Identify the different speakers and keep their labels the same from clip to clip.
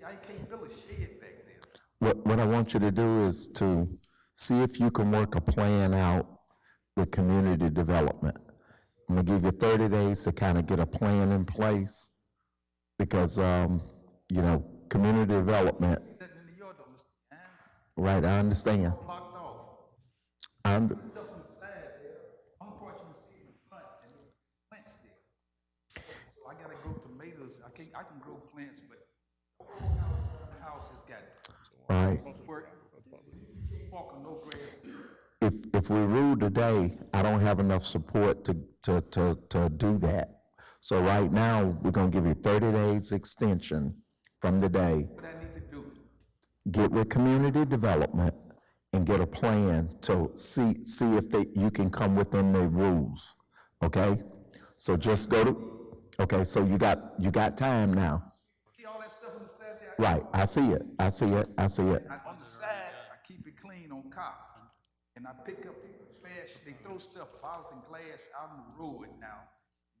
Speaker 1: they can't build a shed back there.
Speaker 2: What, what I want you to do is to see if you can work a plan out with community development. I'm gonna give you thirty days to kind of get a plan in place, because, um, you know, community development,
Speaker 1: That in New York, though, Mr. Hines,
Speaker 2: right, I understand.
Speaker 1: blocked off.
Speaker 2: I under-
Speaker 1: Stuff on the side there, I'm crossing the street in front, and there's plants there. So I gotta grow tomatoes, I can, I can grow plants, but the house has got
Speaker 2: right?
Speaker 1: work, walk on no grass.
Speaker 2: if, if we rule today, I don't have enough support to, to, to, to do that. So right now, we're gonna give you thirty days extension from today.
Speaker 1: What I need to do,
Speaker 2: Get with community development and get a plan to see, see if they, you can come within the rules, okay? So just go to, okay, so you got, you got time now.
Speaker 1: see all that stuff on the side there?
Speaker 2: Right, I see it, I see it, I see it.
Speaker 1: I- On the side, I keep it clean on cop, and I pick up trash, they throw stuff, bottles and glass out on the road now.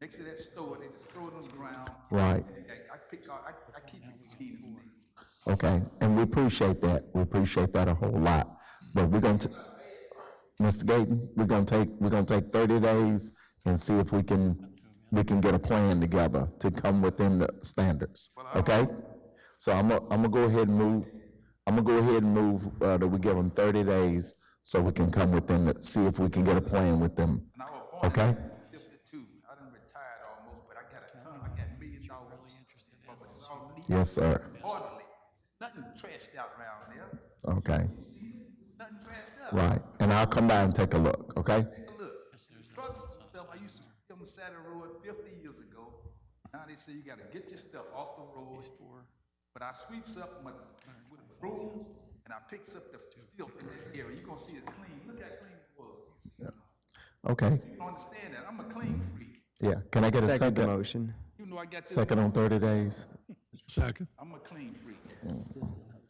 Speaker 1: Next to that store, they just throw it on the ground.
Speaker 2: Right.
Speaker 1: And I, I pick, out- I, I keep it clean on there.
Speaker 2: Okay, and we appreciate that. We appreciate that a whole lot. But we're gonna, t- Mr. Gayton, we're gonna take, we're gonna take thirty days and see if we can, we can get a plan together to come within the standards, okay? So I'm gonna, I'm gonna go ahead and move, I'm gonna go ahead and move, uh, that we give them thirty days so we can come within the, see if we can get a plan with them.
Speaker 1: And I was born in
Speaker 2: Okay.
Speaker 1: 1952. I done retired almost, but I got a ton, I got million dollars. But it's all neat,
Speaker 2: Yes, sir.
Speaker 1: orderly. Nothing trashed out around there.
Speaker 2: Okay,
Speaker 1: It's nothing trashed up.
Speaker 2: right. And I'll come by and take a look, okay?
Speaker 1: Take a look. Trucks and stuff, I used to see on the side of the road fifty years ago. Now they say you gotta get your stuff off the road. But I sweeps up my, with a broom and I picks up the filth in that area. You gonna see it clean. Look how clean it was. You see-
Speaker 2: Okay,
Speaker 1: You don't understand that. I'm a clean freak.
Speaker 2: yeah. Can I get a
Speaker 3: Second the
Speaker 2: second,
Speaker 3: motion.
Speaker 1: You know I got this,
Speaker 2: second on thirty days?
Speaker 4: Second.
Speaker 1: I'm a clean freak.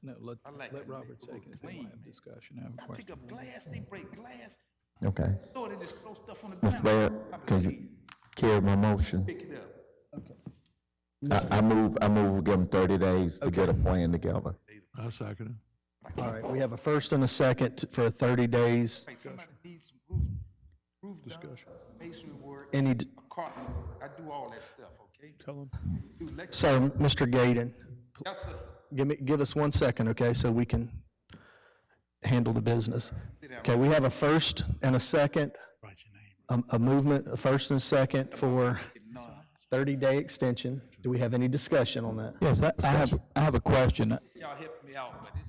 Speaker 4: No, let,
Speaker 1: I like
Speaker 4: let
Speaker 1: to make
Speaker 4: Robert
Speaker 1: people
Speaker 4: second, it. then we'll
Speaker 1: clean.
Speaker 4: have discussion, I have a
Speaker 1: I
Speaker 4: question.
Speaker 1: pick up glass, they break glass,
Speaker 2: Okay.
Speaker 1: so they just throw stuff on the ground.
Speaker 2: Mr. Barrett, can you carry my motion?
Speaker 1: Pick it up.
Speaker 2: I, I move, I move, we give them thirty days to get a plan together.
Speaker 4: I second it.
Speaker 5: All right, we have a first and a second t- for 30 days.
Speaker 1: Like somebody needs some roof, roof done, masonry work, a
Speaker 5: Any, d-
Speaker 1: carpet, I do all that stuff, okay?
Speaker 4: Tell him.
Speaker 1: Do lecture,
Speaker 5: so, Mr. Gaden,
Speaker 1: yes, sir,
Speaker 5: give me, give us one second, okay, so we can handle the business. Okay, we have a first and a second,
Speaker 4: Write your name.
Speaker 5: a a movement, a first and a second for
Speaker 1: none.
Speaker 5: 30-day extension. Do we have any discussion on that?
Speaker 4: Yes, I I have, I have a question.
Speaker 1: Y'all help me out, but it's,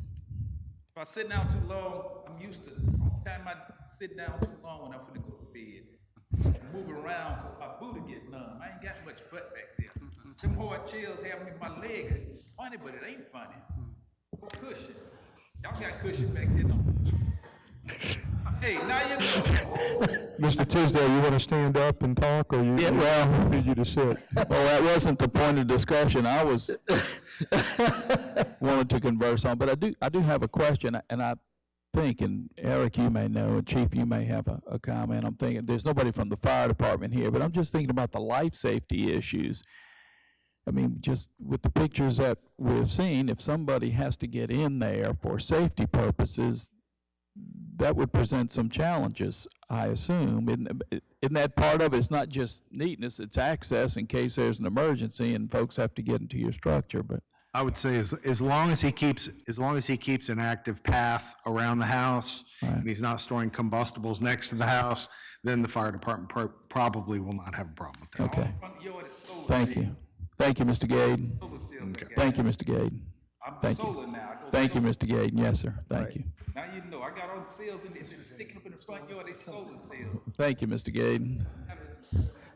Speaker 1: if I sit down too long, I'm used to, all the time I sit down too long when I'm finna go to bed. Move around, 'cause my booty get numb, I ain't got much butt back there. Them hard chills have me, my leg is funny, but it ain't funny. Go Cushion, y'all got cushion back there, don't you? Hey, now you know,
Speaker 6: Mr. Tisdale, you want to stand up and talk, or you?
Speaker 4: Yeah, well-
Speaker 6: Need you to sit.
Speaker 4: Well, that wasn't the point of discussion, I was, wanted to converse on, but I do, I do have a question, and I think, and Eric, you may know, and Chief, you may have a, a comment, I'm thinking, there's nobody from the fire department here, but I'm just thinking about the life safety issues. I mean, just with the pictures that we've seen, if somebody has to get in there for safety purposes, that would present some challenges, I assume. Isn't, isn't that part of it? It's not just neatness, it's access in case there's an emergency and folks have to get into your structure, but.
Speaker 7: I would say as, as long as he keeps, as long as he keeps an active path around the house and he's not storing combustibles next to the house, then the fire department pro- probably will not have a problem with that.
Speaker 4: Okay,
Speaker 1: front yard is solar.
Speaker 4: thank you. Thank you, Mr. Gaden.
Speaker 1: Solar cells I got.
Speaker 4: Thank you, Mr. Gaden.
Speaker 1: I'm
Speaker 4: thank you.
Speaker 1: solar now. I go
Speaker 4: Thank you,
Speaker 1: solar.
Speaker 4: Mr. Gaden. Yes, sir. Thank you.
Speaker 1: Now you know, I got all the cells in there, they're sticking up in the front yard, they solar cells.
Speaker 4: Thank you, Mr. Gaden.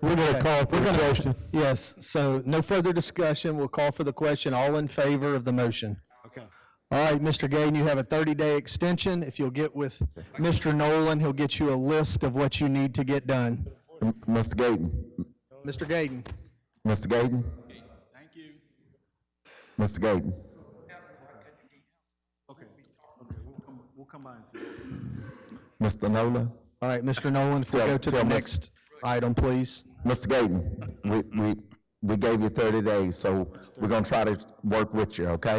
Speaker 6: We're going to call for the question.
Speaker 5: Yes, so no further discussion, we'll call for the question, all in favor of the motion.
Speaker 7: Okay.
Speaker 5: All right, Mr. Gaden, you have a 30-day extension. If you'll get with Mr. Nolan, he'll get you a list of what you need to get done.
Speaker 2: M- Mr. Gayton,
Speaker 5: Mr. Gaden?
Speaker 2: Mr. Gayton? Thank you. Mr. Gayton,
Speaker 7: We'll come by and see.
Speaker 2: Mr. Nola,
Speaker 5: All right, Mr. Nolan, if we
Speaker 2: Tell-
Speaker 5: go to the
Speaker 2: tell Ms.
Speaker 5: next item, please.
Speaker 2: Mr. Gayton, we, we, we gave you thirty days, so we're gonna try to work with you, okay?